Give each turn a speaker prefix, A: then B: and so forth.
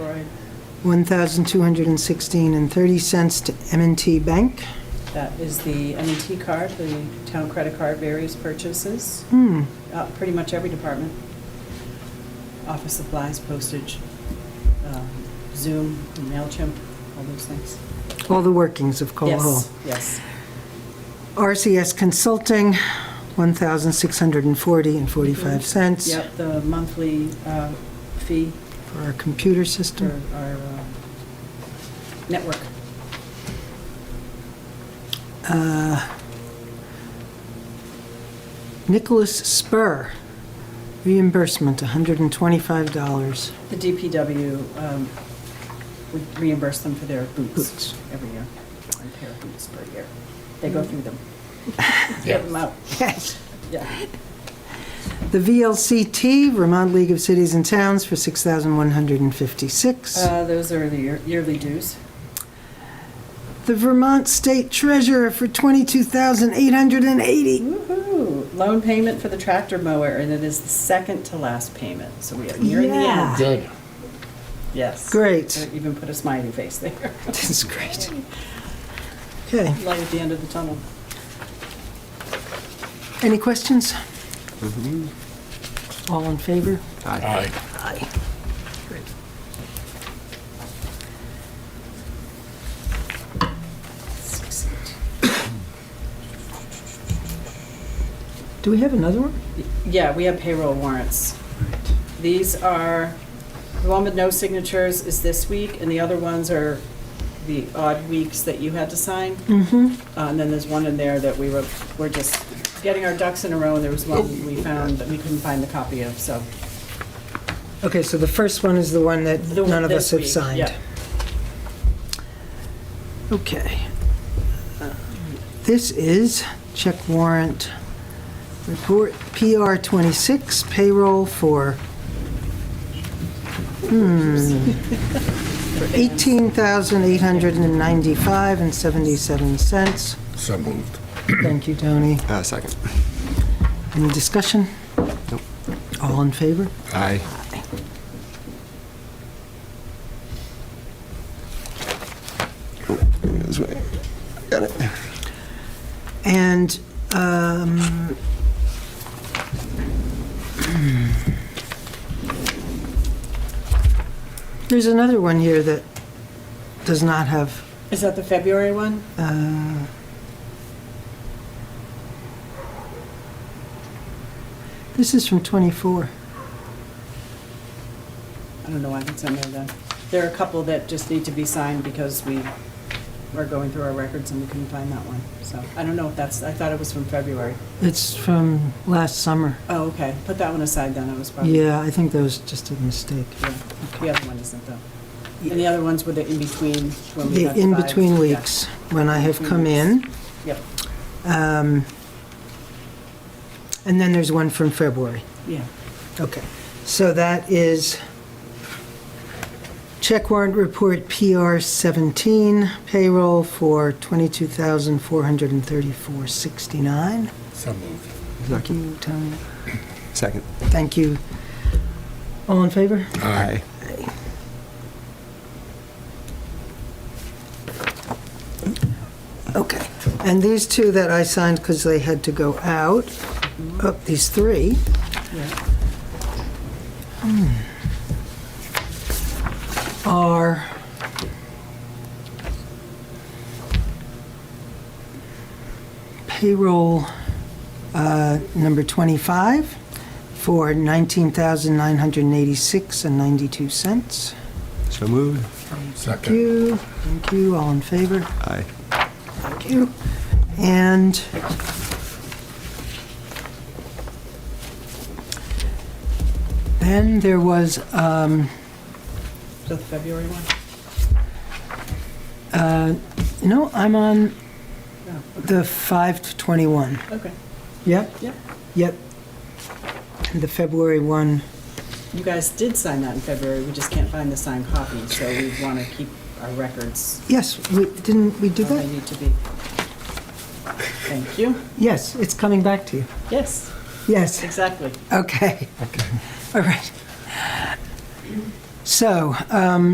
A: $1,216 and 30 cents to m and t Bank.
B: That is the m and T card, the town credit card, various purchases,
A: Hmm,
B: uh, pretty much every department. Office supplies, postage, um, Zoom, MailChimp, all those things.
A: all the workings of Coal Hall.
B: Yes, yes.
A: RCS Consulting, $1,640 and 45 cents.
B: Yep, the monthly uh, fee
A: For our computer
B: for
A: system.
B: our uh, network.
A: Nicholas Spur, reimbursement, $125.
B: The DPW um, would reimburse them for their
A: Boots.
B: boots every year, one pair of boots per year. They go through them. Get them out,
A: Yes.
B: yeah.
A: The VLCT, Vermont League of Cities and Towns, for $6,156.
B: Uh, Those are the year- yearly dues.
A: The Vermont State Treasurer for $22,880.
B: Woo-hoo! Loan payment for the tractor mower, and it is the second to last payment, so we are nearing the
A: Yeah.
B: end.
C: Good.
B: Yes.
A: Great.
B: I Even put a smiley face there.
A: That's great. Okay,
B: Light at the end of the tunnel.
A: any questions? All in favor?
C: Aye.
A: Aye. Great. Do we have another one?
B: Yeah, we have payroll warrants. These are, the one with no signatures is this week, and the other ones are the odd weeks that you had to sign.
A: Mm-hmm.
B: Uh, And then there's one in there that we were, we're just getting our ducks in a row, and there was one we found that we couldn't find the copy of, so.
A: Okay, so the first one is the one that
B: the-
A: none of
B: this
A: us have
B: week,
A: signed.
B: yeah.
A: Okay. This is check warrant report, PR 26, payroll for, hmm, for $18,895.77.
C: So moved.
A: Thank you, Tony.
D: Uh, second.
A: Any discussion?
D: Nope.
A: All in favor?
D: Aye. This way. Got it.
A: And um, there's another one here that does not have,
B: Is that the February one?
A: uh, this is from 24.
B: I don't know why that's in there then. There are a couple that just need to be signed because we are going through our records and we couldn't find that one. So I don't know if that's, I thought it was from February.
A: It's from last summer.
B: Oh, okay. Put that one aside then. I was probably.
A: Yeah, I think that was just a mistake.
B: Yeah, The other one isn't though. And the other ones were the in-between when we
A: The
B: got the five.
A: in-between
B: Yeah.
A: weeks, when I have come in.
B: Yep,
A: um, And then there's one from February.
B: yeah.
A: Okay, so that is check warrant report PR 17, payroll for 22434 69
C: So moved.
A: Thank you, Tony.
D: Second.
A: Thank you. All in favor?
D: Aye.
A: Okay. And these two that I signed because they had to go out, oh, these three,
B: yeah.
A: are payroll uh, number 25 for 19986 and 92 cents.
D: So moved.
A: Thank
C: Second.
A: you, thank you, all in favor?
D: Aye.
A: Thank you. And then there was um,
B: Is that the February one?
A: Uh, No, I'm on
B: No,
A: the
B: Oh,
A: 521.
B: okay,
A: Yep,
B: yep.
A: yep. And the February one,
B: You guys did sign that in February, we just can't find the signed copy, so we want to keep our records
A: yes, we, didn't we do
B: where they
A: that?
B: need to be. Thank you.
A: Yes, it's coming back to you.
B: Yes,
A: Yes,
B: exactly.
A: okay. Okay. All right. So, um,